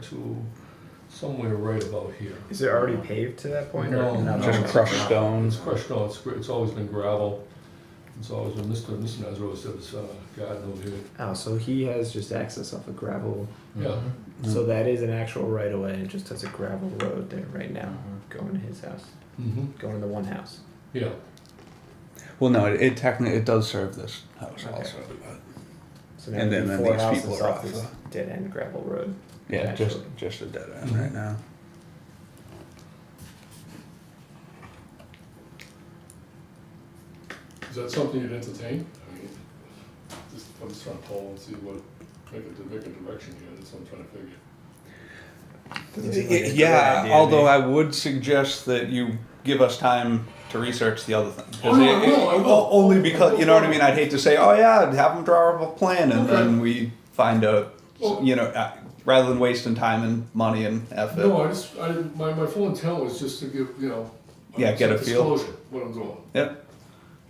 to somewhere right about here. Is it already paved to that point? No, or no. Just crushed stone. It's crushed, no, it's, gr- it's always been gravel. It's always been, Mr. Mr. Nazaro says, uh, garden over here. Oh, so he has just access off a gravel. Yeah, Mm-hmm. So that is an actual right of way. It just has a gravel road there right now, Mm-hmm. going to his house, Mm-hmm. hmm going to the one house. yeah. Well, no, it, it technically it does serve this house Okay. also. But So now And there'd then- be then four these houses people are off off, this uh, dead end gravel road. yeah, just Naturally. just a dead end Mhm. right now. Is that something you'd entertain? I mean, just, I'm just trying to poll and see what, make a, make a direction here, that's what I'm trying to figure. Doesn't seem like a great yeah, idea to although me. I would suggest that you give us time to research the other thing. 'Cause Oh, no, I will, I o- will. Only because you know what I mean. I'd hate to say, oh yeah, have them draw up a plan, and then we find a Well- you know uh, rather than wasting time and money and effort. No, I just, I, didn't- my, my full intent was just to give, you know, Yeah, get a some feel. Disclosure, what I'm doing. Yep.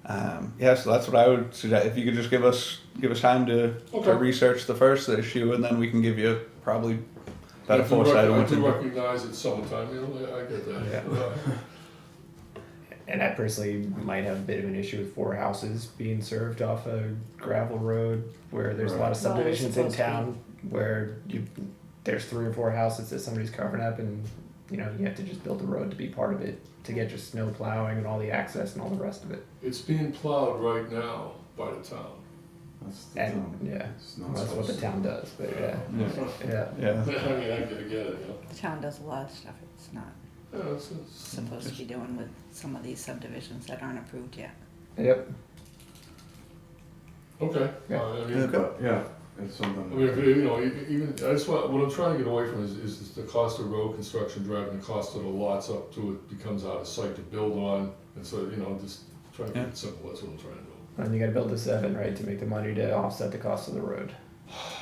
Um, yeah, so that's what I would suggest. If you could just give us give us time to, Okay. to research the first issue, and then we can give you probably better I do foresight rec- on what to I do do. recognize it's summertime, you know, I I get that. Uh, And I personally might have a bit of an issue with four houses being served off a gravel road where there's a lot of Right. Well, it's subdivisions in supposed to be. town where you there's three or four houses that somebody's covering up and you know you have to just build a road to be part of it to get your snow plowing and all the access and all the rest of it. It's being plowed right now by the town. That's the And town. yeah, It's not that's what the supposed to- town does. But yeah, yeah. I Yeah, mean, I get, I get it, you know. The town does a lot of stuff it's not Yeah, it's- it's- supposed to be doing with some of these subdivisions that aren't approved yet. Yep. Okay, Yeah. Uh, I mean, Yeah, but, yeah, it's something. I mean, if, you know, e- even, I just want, what I'm trying to get away from is, is the cost of road construction, driving the cost of the lots up to it becomes out of sight to build on, and so, you know, just trying to keep Yeah. it simple, that's what I'm trying to do. And you got to build the seven right to make the money to offset the cost of the road.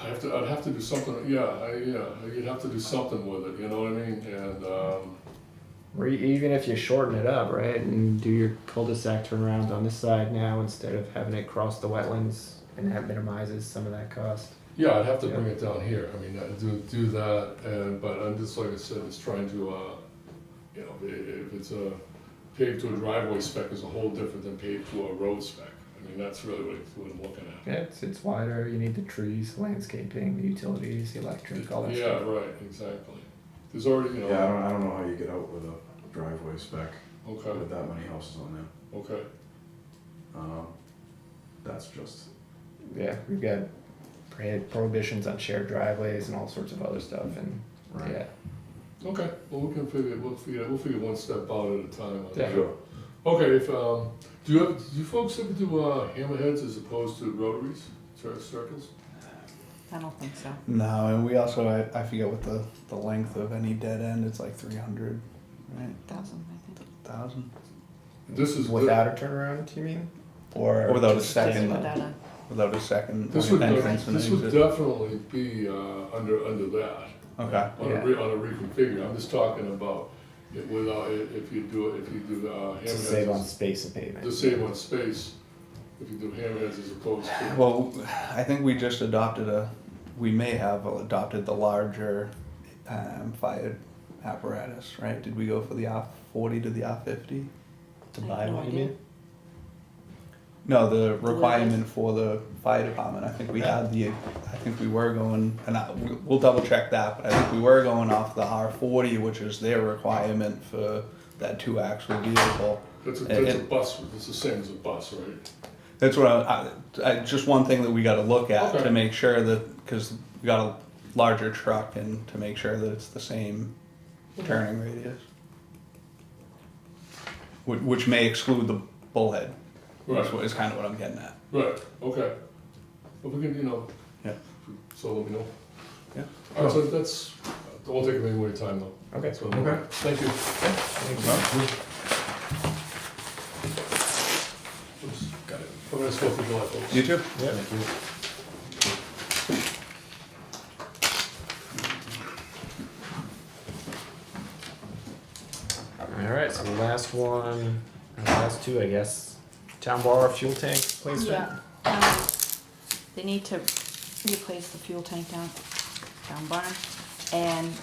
I have to, I'd have to do something, yeah, I, yeah, you'd have to do something with it, you know what I mean, and, um, Or e- even if you shorten it up, right, and do your cul-de-sac turnaround on this side now instead of having it cross the wetlands, and that minimizes some of that cost. yeah, I'd have to bring Yeah. it down here, I mean, i do, do that, and, but I'm just, like I said, just trying to, uh, you know, i- if it's a paved to a driveway spec is a whole different than paved to a road spec, I mean, that's really what what I'm looking at. Yeah, it's, it's wider. You need the trees, landscaping, the utilities, the electric, all that Yeah, stuff. right, exactly. There's already, you know, Yeah, I don't, I don't know how you get out with a driveway spec okay, with that many houses on there. okay. Um, that's just, Yeah, we've got prohi- prohibitions on shared driveways and all sorts of other stuff, and right? yeah, Okay, well, we can figure, we'll figure, we'll figure one step out at a time. on that. Yeah. Sure. Okay, if, um, do you, have- do you folks ever do, uh, hammerheads as opposed to rotaries, cir- circles? I don't think so. no, and we also I, I forget what the the length of any dead end. It's like three hundred, right? Thousand, I think. Thousand This is, without a turnaround, you mean? Or Or without a just- second. Just uh, without a- without a second this would, entrance and this would exit. definitely be, uh, under, under that. Okay. On Yeah. a, re- on a reconfigure, I'm just talking about it without, i- if you do, it- if you do, uh, hammerheads. to save on as- space and pavement. To save on space, if you do hammerheads as opposed to. Well, I think we just adopted a, we may have adopted the larger um, fire apparatus, right? Did we go for the R forty to the R fifty? to I have buy no one, you idea. mean? No, the requirement for the fire department, I think we had the, I think we were going, and I, we- we'll double check that, but I think we were going off the R forty, which is their requirement for that two axle vehicle. That's a, uh, And- that's a bus, it's the same as a bus, right? That's what I, I, I just one thing that we got to look at Okay. to make sure that because we got a larger truck and to make sure that it's the same turning radius, which, which may exclude the bullhead. That's what is kind of what I'm getting at. Right, okay. But we can, you know. Yeah. So let me know. Yeah. All right, so that's, I won't take any more of your time though. Okay. That's what I'm- Okay. Thank you. Oops, Got it. I'm gonna swap with July, folks. You too. Yeah. All right, so the last one, the last two, I guess. Town bar fuel tank placement. Yeah, um, they need to replace the fuel tank down, down barn. And